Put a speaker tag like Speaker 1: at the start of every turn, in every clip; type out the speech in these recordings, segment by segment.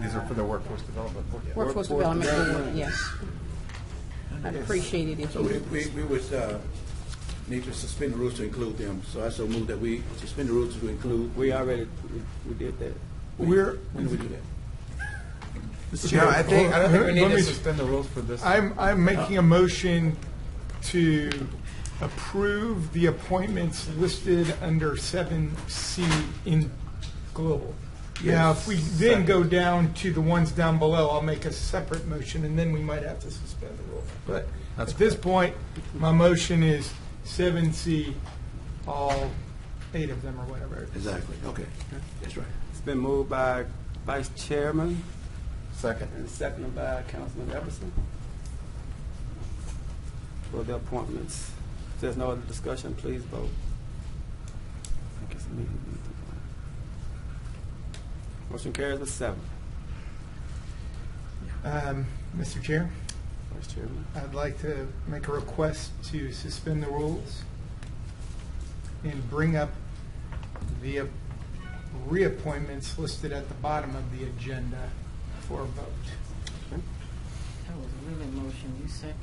Speaker 1: These are for the workforce development.
Speaker 2: Workforce Development Board, yes. I appreciate it if
Speaker 3: So we,
Speaker 2: you,
Speaker 3: we, we would, uh, need to suspend the rules to include them, so I so move that we suspend the rules to include.
Speaker 4: We already, we- we did that.
Speaker 5: We're,
Speaker 3: When do we do that?
Speaker 1: No, I think, I don't think we need
Speaker 5: Let
Speaker 1: to
Speaker 5: me-
Speaker 1: suspend the rules for this.
Speaker 5: I'm, I'm making a motion to approve the appointments listed under seven C in global. Now, if we then go down to the ones down below, I'll make a separate motion, and then we might have to suspend the rule. But at this point, my motion is seven C, all eight of them or whatever.
Speaker 3: Exactly, okay, that's right.
Speaker 4: It's been moved by Vice Chairman
Speaker 1: Second.
Speaker 4: and seconded by Councilman Everson for the appointments. If there's no other discussion, please vote. I think it's me. Motion carries with seven.
Speaker 5: Um, Mr. Chair?
Speaker 4: Vice Chairman.
Speaker 5: I'd like to make a request to suspend the rules and bring up the reappointments listed at the bottom of the agenda for a vote.
Speaker 6: That was a really motion, you second?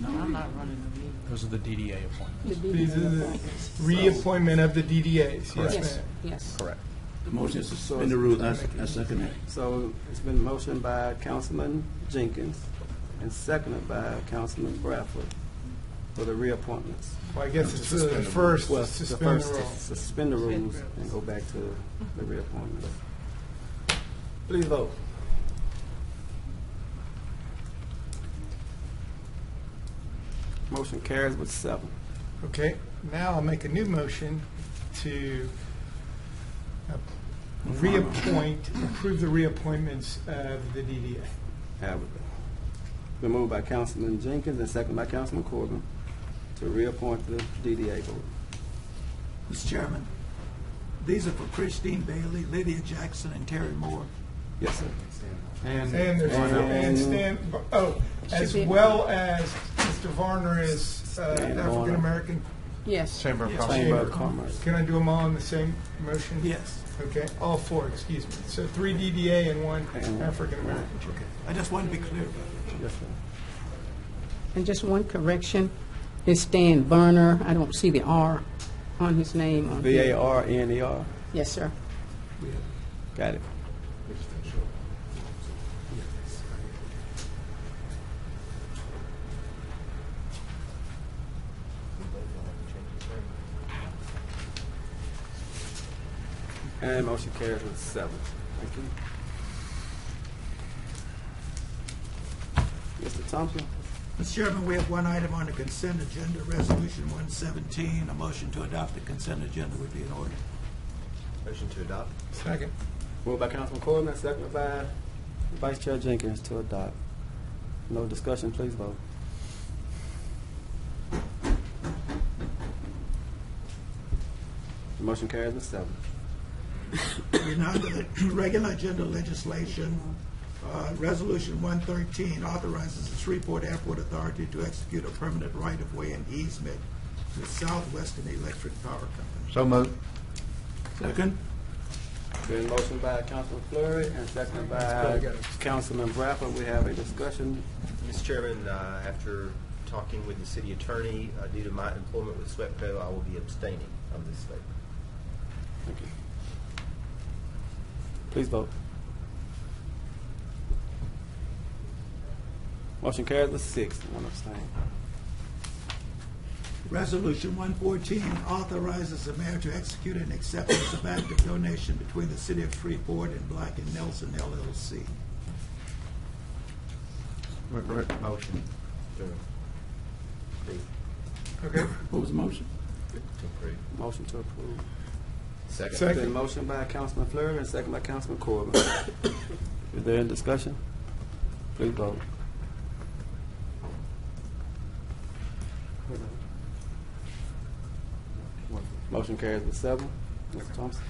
Speaker 6: No. I'm not running the meeting.
Speaker 7: Those are the DDA appointments.
Speaker 2: the
Speaker 5: These are
Speaker 2: DDA.
Speaker 5: the reappointment of the DDAs, yes,
Speaker 2: Yes,
Speaker 5: ma'am.
Speaker 2: yes.
Speaker 1: Correct.
Speaker 3: The motion is to suspend the rules, I, I second that.
Speaker 4: So it's been motioned by Councilman Jenkins and seconded by Councilman Bradford for the reappointments.
Speaker 5: Well, I guess it's
Speaker 1: Suspend the
Speaker 5: the
Speaker 1: rules.
Speaker 5: first
Speaker 4: Well,
Speaker 5: to
Speaker 4: the
Speaker 5: suspend the
Speaker 4: first,
Speaker 5: rules.
Speaker 4: suspend the rules and go back to the reappointments. Please vote. Motion carries with seven.
Speaker 5: Okay, now I'll make a new motion to uh, reappoint, approve the reappointments of the DDA.
Speaker 4: Have it. Been moved by Councilman Jenkins and seconded by Councilman Corbin to reappoint the DDA board.
Speaker 8: Mr. Chairman, these are for Christine Bailey, Lydia Jackson, and Terry Moore.
Speaker 4: Yes, sir.
Speaker 5: And there's, and Stan, oh, as
Speaker 2: Should be-
Speaker 5: well as Mr. Varner is uh,
Speaker 4: Varner.
Speaker 5: African-American.
Speaker 2: Yes.
Speaker 1: Chamber of
Speaker 8: Yes.
Speaker 1: Commerce.
Speaker 4: Chamber of Commerce.
Speaker 5: Can I do them all in the same motion?
Speaker 8: Yes.
Speaker 5: Okay, all four, excuse me. So three DDA and one African-American.
Speaker 8: I just want to be clear about that.
Speaker 4: Yes, sir.
Speaker 2: And just one correction, it's Stan Berner, I don't see the R on his name. on
Speaker 4: V
Speaker 2: here.
Speaker 4: A R N E R.
Speaker 2: Yes, sir.
Speaker 4: Got it. And motion carries with seven. Thank you. Mr. Thompson?
Speaker 8: Mr. Chairman, we have one item on the consent agenda, Resolution 117. A motion to adopt the consent agenda would be in order.
Speaker 5: Second.
Speaker 4: Moved by Councilman Corbin, and seconded by Vice Chair Jenkins to adopt. No discussion, please vote. The motion carries with seven.
Speaker 8: We're now to the regular agenda legislation. Uh, Resolution 113 authorizes the Shreveport Airport Authority to execute a permanent right-of-way and easement to Southwestern Electric Power Company.
Speaker 1: So moved.
Speaker 8: Second.
Speaker 4: Been motion by Councilman Fleury and seconded by Councilman Bradford. We have a discussion.
Speaker 9: Mr. Chairman, uh, after talking with the city attorney, uh, due to my employment with SWEPCO, I will be abstaining on this vote.
Speaker 4: Thank you. Please vote. Motion carries with six, one abstain.
Speaker 8: Resolution 114 authorizes the mayor to execute an acceptance of act of donation between the city of Freeport and Black and Nelson LLC.
Speaker 9: Motion. To
Speaker 5: Okay,
Speaker 3: What was the motion?
Speaker 9: approve.
Speaker 4: Motion to approve.
Speaker 5: Second.
Speaker 4: Been motion by Councilman Fleury and second by Councilman Corbin. Is there any discussion? Please vote. Motion carries with seven. Mr. Thompson?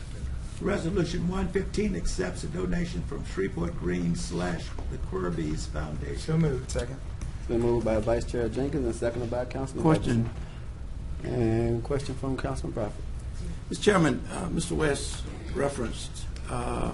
Speaker 8: Resolution 115 accepts a donation from Freeport Green slash the Querbees Foundation.
Speaker 5: so moved. Second.
Speaker 4: It's been moved by Vice Chair Jenkins and seconded by Councilman.
Speaker 3: Question.
Speaker 4: Robinson. And question from Councilman Bradford.
Speaker 3: Mr. Chairman, uh, Mr. West referenced uh,